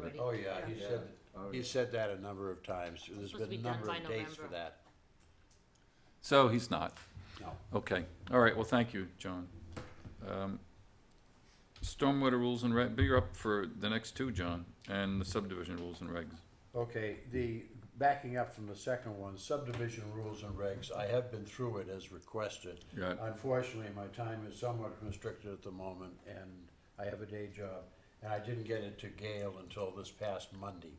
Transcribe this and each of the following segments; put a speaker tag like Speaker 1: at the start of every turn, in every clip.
Speaker 1: we.
Speaker 2: Oh, yeah, he
Speaker 3: Yeah.
Speaker 2: said,
Speaker 3: Oh,
Speaker 2: he
Speaker 3: yeah.
Speaker 2: said that a number of times, there's
Speaker 1: supposed to be
Speaker 2: been a
Speaker 1: done
Speaker 2: number
Speaker 1: by
Speaker 2: of dates for
Speaker 1: November.
Speaker 2: that,
Speaker 4: So he's not.
Speaker 2: no.
Speaker 4: Okay, all right, well, thank you, John. Um, Stormwater rules and reg, you're up for the next two, John, and the subdivision rules and regs.
Speaker 2: Okay, the, backing up from the second one, subdivision rules and regs, I have been through it as requested.
Speaker 4: Yeah.
Speaker 2: Unfortunately, my time is somewhat constricted at the moment, and I have a day job, and I didn't get it to Gail until this past Monday.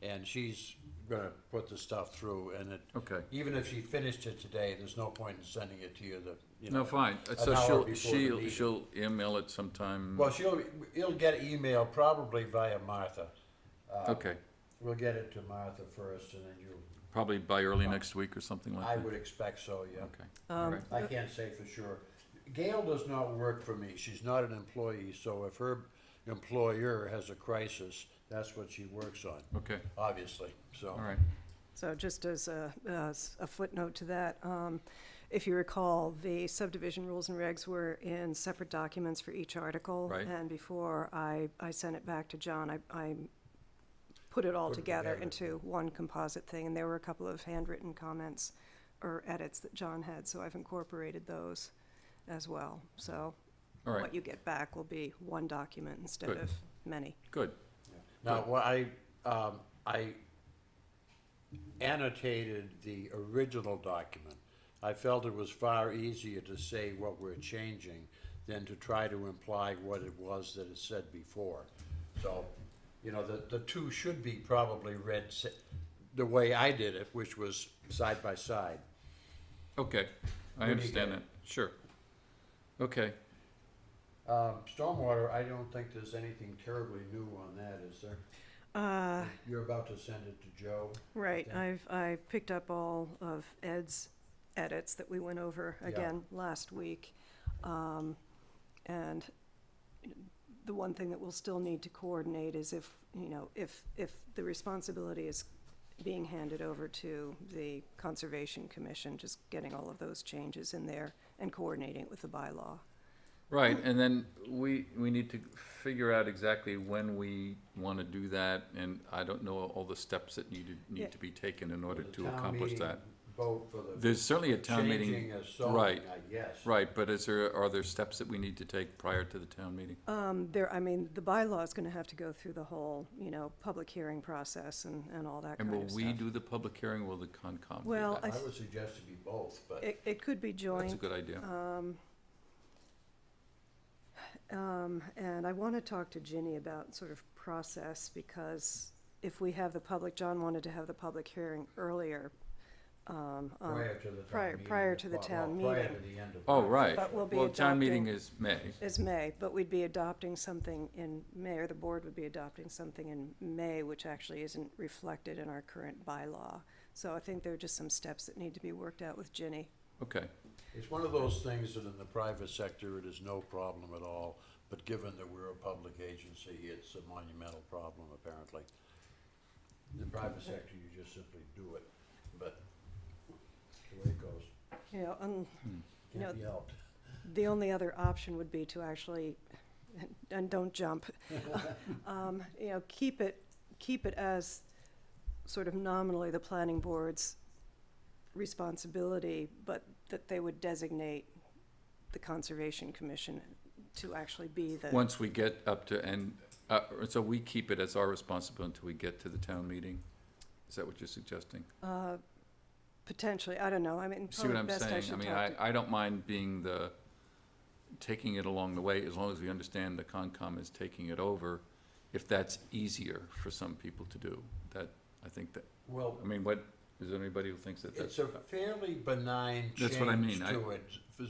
Speaker 2: And she's gonna put the stuff through, and it,
Speaker 4: Okay.
Speaker 2: even if she finished it today, there's no point in sending it to you, the, you know.
Speaker 4: No, fine,
Speaker 2: an
Speaker 4: so
Speaker 2: hour before
Speaker 4: she'll,
Speaker 2: the
Speaker 4: she'll,
Speaker 2: meeting.
Speaker 4: she'll email it sometime,
Speaker 2: Well, she'll, it'll get email probably via Martha.
Speaker 4: okay,
Speaker 2: We'll get it to Martha first, and then you,
Speaker 4: probably by early next week or something like
Speaker 2: Uh, I
Speaker 4: that.
Speaker 2: would expect so, yeah.
Speaker 4: Okay, all right,
Speaker 2: I can't say for sure. Gail does not work for me. She's not an employee, so if her employer has a crisis, that's what she works on,
Speaker 4: okay,
Speaker 2: obviously, so.
Speaker 4: all right,
Speaker 5: So just as a, as a footnote to that, um, if you recall, the subdivision rules and regs were in separate documents for each article.
Speaker 4: Right.
Speaker 5: And before I, I sent it back to John, I, I put it all
Speaker 2: Put it
Speaker 5: together
Speaker 2: together.
Speaker 5: into one composite thing. And there were a couple of handwritten comments or edits that John had, so I've incorporated those as well. So
Speaker 4: all
Speaker 5: what
Speaker 4: right,
Speaker 5: you get back will be one document instead
Speaker 4: Good.
Speaker 5: of many.
Speaker 4: good,
Speaker 2: Now, what I, um, I annotated the original document. I felt it was far easier to say what we're changing than to try to imply what it was that it said before. So, you know, the, the two should be probably read se- the way I did it, which was side by side.
Speaker 4: okay, I
Speaker 2: When you
Speaker 4: understand
Speaker 2: get
Speaker 4: that, sure. Okay,
Speaker 2: Um, stormwater, I don't think there's anything terribly new on that, is there?
Speaker 5: Uh,
Speaker 2: You're about to send it to Joe.
Speaker 5: Right,
Speaker 2: Okay.
Speaker 5: I've, I picked up all of Ed's edits that we went over
Speaker 2: Yeah.
Speaker 5: again last week. Um, And the one thing that we'll still need to coordinate is if, you know, if, if the responsibility is being handed over to the Conservation Commission, just getting all of those changes in there and coordinating it with the bylaw.
Speaker 4: Right, and then we, we need to figure out exactly when we wanna do that, and I don't know all the steps that need to,
Speaker 5: Yeah.
Speaker 4: need to be taken in order
Speaker 2: The
Speaker 4: to
Speaker 2: town
Speaker 4: accomplish
Speaker 2: meeting
Speaker 4: that.
Speaker 2: Vote for the.
Speaker 4: There's certainly a town
Speaker 2: Changing
Speaker 4: meeting,
Speaker 2: a song,
Speaker 4: right,
Speaker 2: I guess.
Speaker 4: right, but is there, are there steps that we need to take prior to the town meeting?
Speaker 5: Um, There, I mean, the bylaw is gonna have to go through the whole, you know, public hearing process and, and all that
Speaker 4: And
Speaker 5: kind
Speaker 4: will
Speaker 5: of stuff.
Speaker 4: we do the public hearing, will the Concom do
Speaker 5: Well,
Speaker 4: that?
Speaker 2: I would suggest to be both, but
Speaker 5: It, it could be
Speaker 4: That's a
Speaker 5: joint,
Speaker 4: good idea.
Speaker 5: uh, um, and I wanna talk to Ginny about sort of process, because if we have the public, John wanted to have the public hearing earlier, um, on-
Speaker 2: prior to the town
Speaker 5: prior-
Speaker 2: meeting.
Speaker 5: prior
Speaker 2: if
Speaker 5: to the
Speaker 2: not-
Speaker 5: town
Speaker 2: well, Prior to
Speaker 5: meeting.
Speaker 2: the end of.
Speaker 4: Oh, right,
Speaker 5: But we'll be
Speaker 4: well, town meeting
Speaker 5: adopting-
Speaker 4: is May,
Speaker 5: is May, but we'd be adopting something in May, or the board would be adopting something in May, which actually isn't reflected in our current bylaw. So I think there are just some steps that need to be worked out with Ginny.
Speaker 4: okay,
Speaker 2: It's one of those things that in the private sector, it is no problem at all, but given that we're a public agency, it's a monumental problem apparently. In the private sector, you just simply do it, but the way it goes,
Speaker 5: You know, un-
Speaker 2: can't
Speaker 5: No.
Speaker 2: be helped.
Speaker 5: The only other option would be to actually, and don't jump, um, you know, keep it, keep it as sort of nominally the planning board's responsibility, but that they would designate the Conservation Commission to actually be the,
Speaker 4: once we get up to, and, uh, so we keep it as our responsibility until we get to the town meeting? Is that what you're suggesting?
Speaker 5: uh, potentially, I don't know, I mean,
Speaker 4: See what
Speaker 5: probably
Speaker 4: I'm
Speaker 5: Oh, best I
Speaker 4: saying? I
Speaker 5: should
Speaker 4: mean,
Speaker 5: talk to.
Speaker 4: I, I don't mind being the, taking it along the way, as long as we understand the Concom is taking it over, if that's easier for some people to do, that, I think that,
Speaker 2: Well,
Speaker 4: I mean, what, is there anybody who thinks that
Speaker 2: It's
Speaker 4: that's?
Speaker 2: a fairly benign change
Speaker 4: That's what I mean, I-
Speaker 2: to it,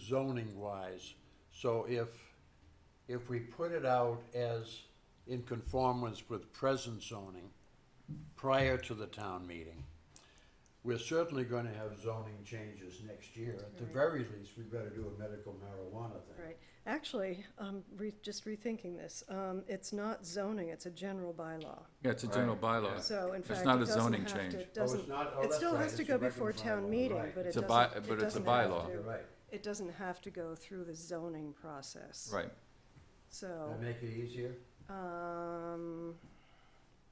Speaker 2: zoning wise. So if, if we put it out as in conformance with present zoning prior to the town meeting, we're certainly gonna have zoning changes next year. At the very least, we better do a medical marijuana thing.
Speaker 5: Right, actually, I'm re, just rethinking this, um, it's not zoning, it's a general bylaw.
Speaker 4: Yeah, it's a general bylaw.
Speaker 5: So in
Speaker 4: It's
Speaker 5: fact, it
Speaker 4: not a
Speaker 5: doesn't
Speaker 4: zoning
Speaker 5: have to,
Speaker 4: change.
Speaker 5: it doesn't,
Speaker 2: not- oh,
Speaker 5: it
Speaker 2: that's
Speaker 5: still
Speaker 2: right,
Speaker 5: has to
Speaker 2: it's a
Speaker 5: go
Speaker 2: regular
Speaker 5: before town
Speaker 2: bylaw,
Speaker 5: meeting,
Speaker 2: right.
Speaker 5: but it
Speaker 4: It's a
Speaker 5: doesn't,
Speaker 4: by-
Speaker 5: it
Speaker 4: but it's a
Speaker 5: doesn't have
Speaker 4: bylaw.
Speaker 5: to-
Speaker 2: You're right.
Speaker 5: It doesn't have to go through the zoning process.
Speaker 4: Right,
Speaker 5: So,
Speaker 2: That make it easier?
Speaker 5: um,